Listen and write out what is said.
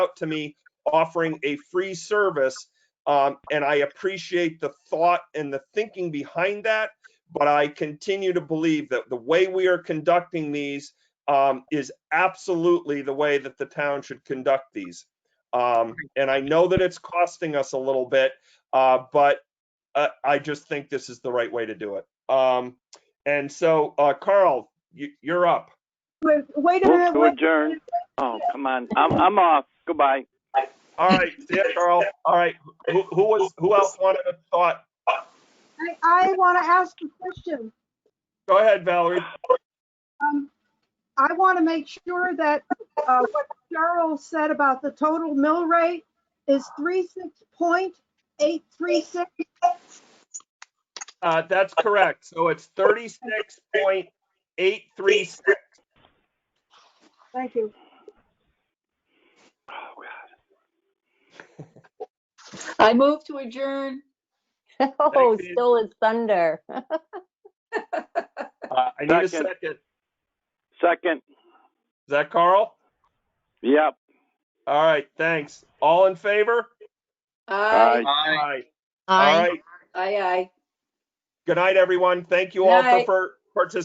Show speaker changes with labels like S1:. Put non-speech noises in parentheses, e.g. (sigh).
S1: out to me offering a free service. Um, and I appreciate the thought and the thinking behind that. But I continue to believe that the way we are conducting these um, is absolutely the way that the town should conduct these. Um, and I know that it's costing us a little bit, uh, but uh, I just think this is the right way to do it. Um, and so, uh, Carl, you, you're up.
S2: Wait wait a
S3: Move
S2: minute,
S3: to
S2: wait,
S3: adjourn. Oh, come on. I'm, I'm off. Goodbye.
S1: All right, see ya, Carl. All right, who, who was, who else wanted a thought?
S2: I, I want to ask a question.
S1: Go ahead, Valerie.
S2: Um, I want to make sure that, uh, what Cheryl said about the total mill rate is three six point eight three six.
S1: Uh, that's correct. So it's thirty-six point eight three six.
S2: Thank you.
S3: Oh, God.
S4: I move to adjourn.
S5: (laughs) Oh,
S1: Thank you.
S5: still it's thunder.
S1: Uh, I need a
S3: Second.
S1: second. Is
S3: Second.
S1: that Carl?
S3: Yep.
S1: All right, thanks. All in favor?
S4: Aye,
S1: Aye. All
S5: I
S1: right.
S4: aye, aye.
S1: Good night, everyone. Thank you all for
S4: Night.
S1: for participating.